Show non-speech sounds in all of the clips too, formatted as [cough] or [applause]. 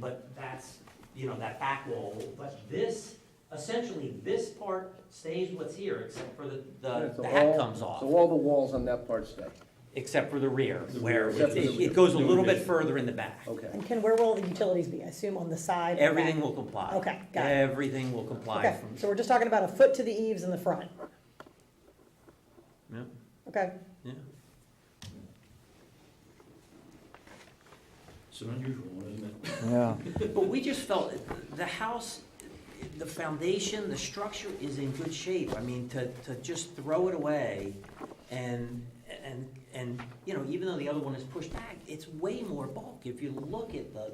but that's, you know, that back wall, but this, essentially, this part stays what's here, except for the, the, So the hat all- comes off. So all the walls on that part stay, Except for the rear, The where rear, it, except for the it rear. goes a little bit Doing it. further in the back. okay. And Ken, where will the utilities be? I assume on the side? and back? Everything will comply. Okay, got it. Everything will comply Okay, from, so we're just talking about a foot to the eaves in the front, yeah, okay? yeah. It's an unusual one, isn't it? Yeah. But we just felt, the house, the foundation, the structure is in good shape. I mean, to, to just throw it away and, and, and, you know, even though the other one is pushed back, it's way more bulk. If you look at the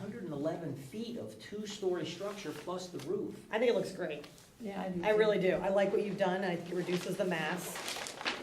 hundred and eleven feet of two-story structure plus the roof. I think it looks great. Yeah, I really do. I like what you've done. I think it reduces the mass.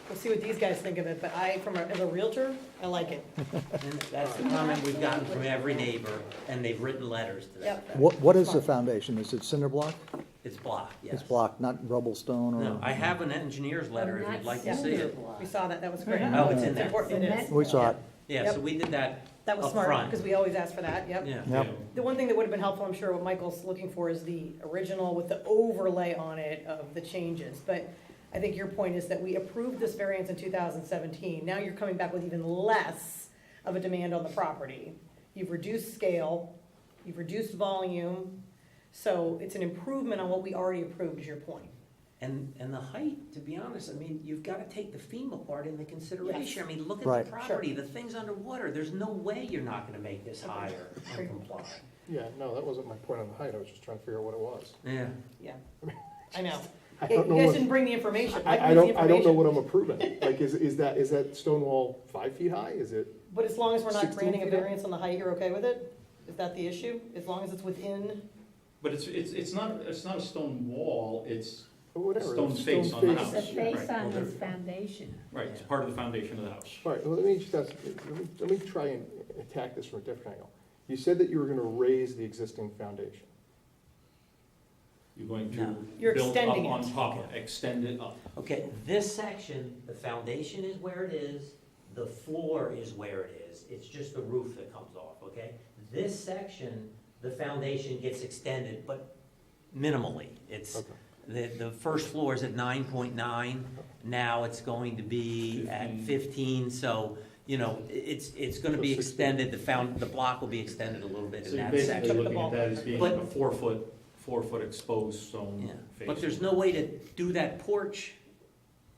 We'll see what these guys think of it, but I, from a, as a realtor, I like it. And that's the comment we've gotten from every neighbor, and they've written letters to that. Yep. effect. What, what is the foundation? Is it cinder block? It's blocked, yes. It's block, not rubble stone or? No, I have an engineer's letter if you'd like to see it. We saw that, that was great. Oh, it's in there. important. It is. We saw it. Yeah, so we did that, That was Up smart, front. because we always ask for that, yep. yeah. Yep. Yeah. The one thing that would have been helpful, I'm sure what Michael's looking for is the original with the overlay on it of the changes. But I think your point is that we approved this variance in two thousand seventeen. Now you're coming back with even less of a demand on the property. You've reduced scale, you've reduced volume, so it's an improvement on what we already approved, is your point. And, and the height, to be honest, I mean, you've gotta take the FEMA part into consideration. I mean, look at Right. the Sure. property, the thing's underwater, there's no way you're not gonna make this higher and comply. Yeah, no, that wasn't my point on the height, I was just trying to figure out what it was. Yeah. Yeah, I know. I Yeah, don't know You guys what- didn't bring the information. I, I brings the don't, I don't know information. what I'm approving, like, is, is that, is that stone wall five feet high, is it? But as long as we're not 16 granting a feet up? variance on the height, you're okay with it? Is that the issue? As long as it's within? But it's, it's, it's not, it's not a stone wall, it's, Or oh, Whatever. Stone it's face on the face. house. The face Right, on well, his there- foundation. right, it's part of the foundation of the house. All right, well, let me just ask, let me, let me try and attack this from a different angle. You said that you were gonna raise the existing foundation. You're going No. You're to build up extending on it. top, of it, extend it up. Okay, this section, the foundation is where it is, the floor is where it is, it's just the roof that comes off, okay? This section, the foundation gets extended, but minimally. It's, Okay. the, the first floor is at nine point nine, now it's going to be at fifteen, so, you know, i- it's, it's gonna be So 16. extended, the found, the block will be extended a little bit So in you're that basically section. looking at that as being But- a four-foot, four-foot exposed Yeah, stone face. but there's no way to do that porch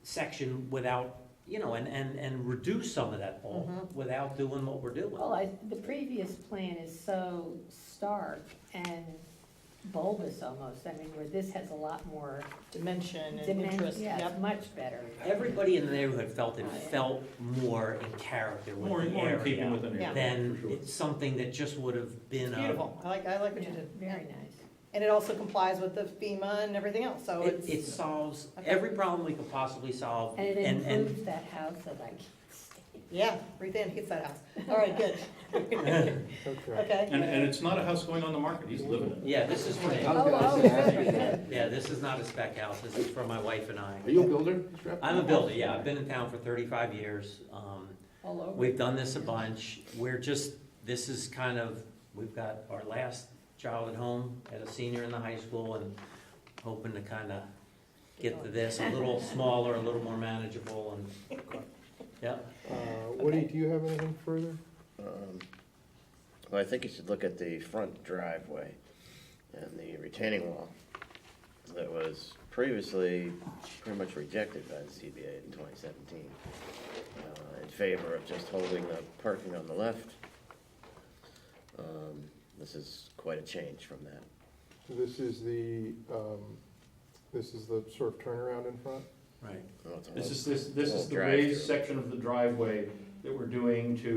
section without, you know, and, and, and reduce some of that bulk Mhm. without doing what we're doing. Well, I, the previous plan is so stark and bulbous almost, I mean, where this has a lot more dimension and dimension, interest, yeah, yep. it's much better. Everybody in the neighborhood felt it Oh, felt more in character More, with the more in keeping with area the Yeah. neighborhood, than for sure. it's something that just would have been a. Beautiful, I like, I like what you Yeah, did. Very nice. And it also complies with the FEMA and everything else, so It, it's, it solves Okay. every problem we could possibly solve. And it and- and- improves that house that I can't stand. yeah, Ruth Ann hates that house. All right, [laughs] good, Okay. okay. And, and it's not a house going on the market, he's living in it. Yeah, this is for me. Oh, oh, good, good. Yeah, this is not a spec house, this is for my wife and I. Are you a builder? Strap? I'm a builder, yeah, I've been in town for thirty-five years, um, All over. We've done this a bunch. We're just, this is kind of, we've got our last child at home, at a senior in the high school, and hoping to kind of get to this, a [laughs] little smaller, a little more manageable, and, yeah. Uh, Woody, do you have anything further? Um, Well, I think you should look at the front driveway and the retaining wall that was previously pretty much rejected by the CBA in twenty seventeen uh, in favor of just holding the parking on the left. Um, This is quite a change from that. This is the, um, this is the sort of turnaround in front? Right. Well, it's a This little- is, this, this is the Little raised drive-through. section of the driveway that we're doing to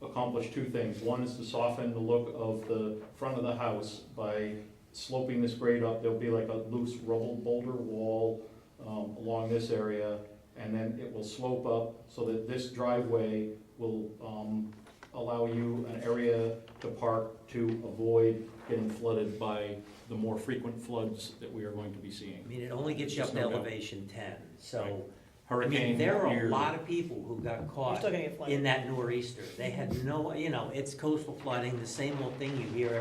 accomplish two things. One is to soften the look of the front of the house by sloping this grade up. There'll be like a loose rubble boulder wall, um, along this area. And then it will slope up so that this driveway will, um, allow you an area to park to avoid getting flooded by the more frequent floods that we are going to be seeing. I mean, it only gets you up to elevation ten, so, I Hurricane. mean, there are a year. lot of people who got You're caught still gonna get flooded. in that nor'easter. They had no, you know, it's coastal flooding, the same old thing you hear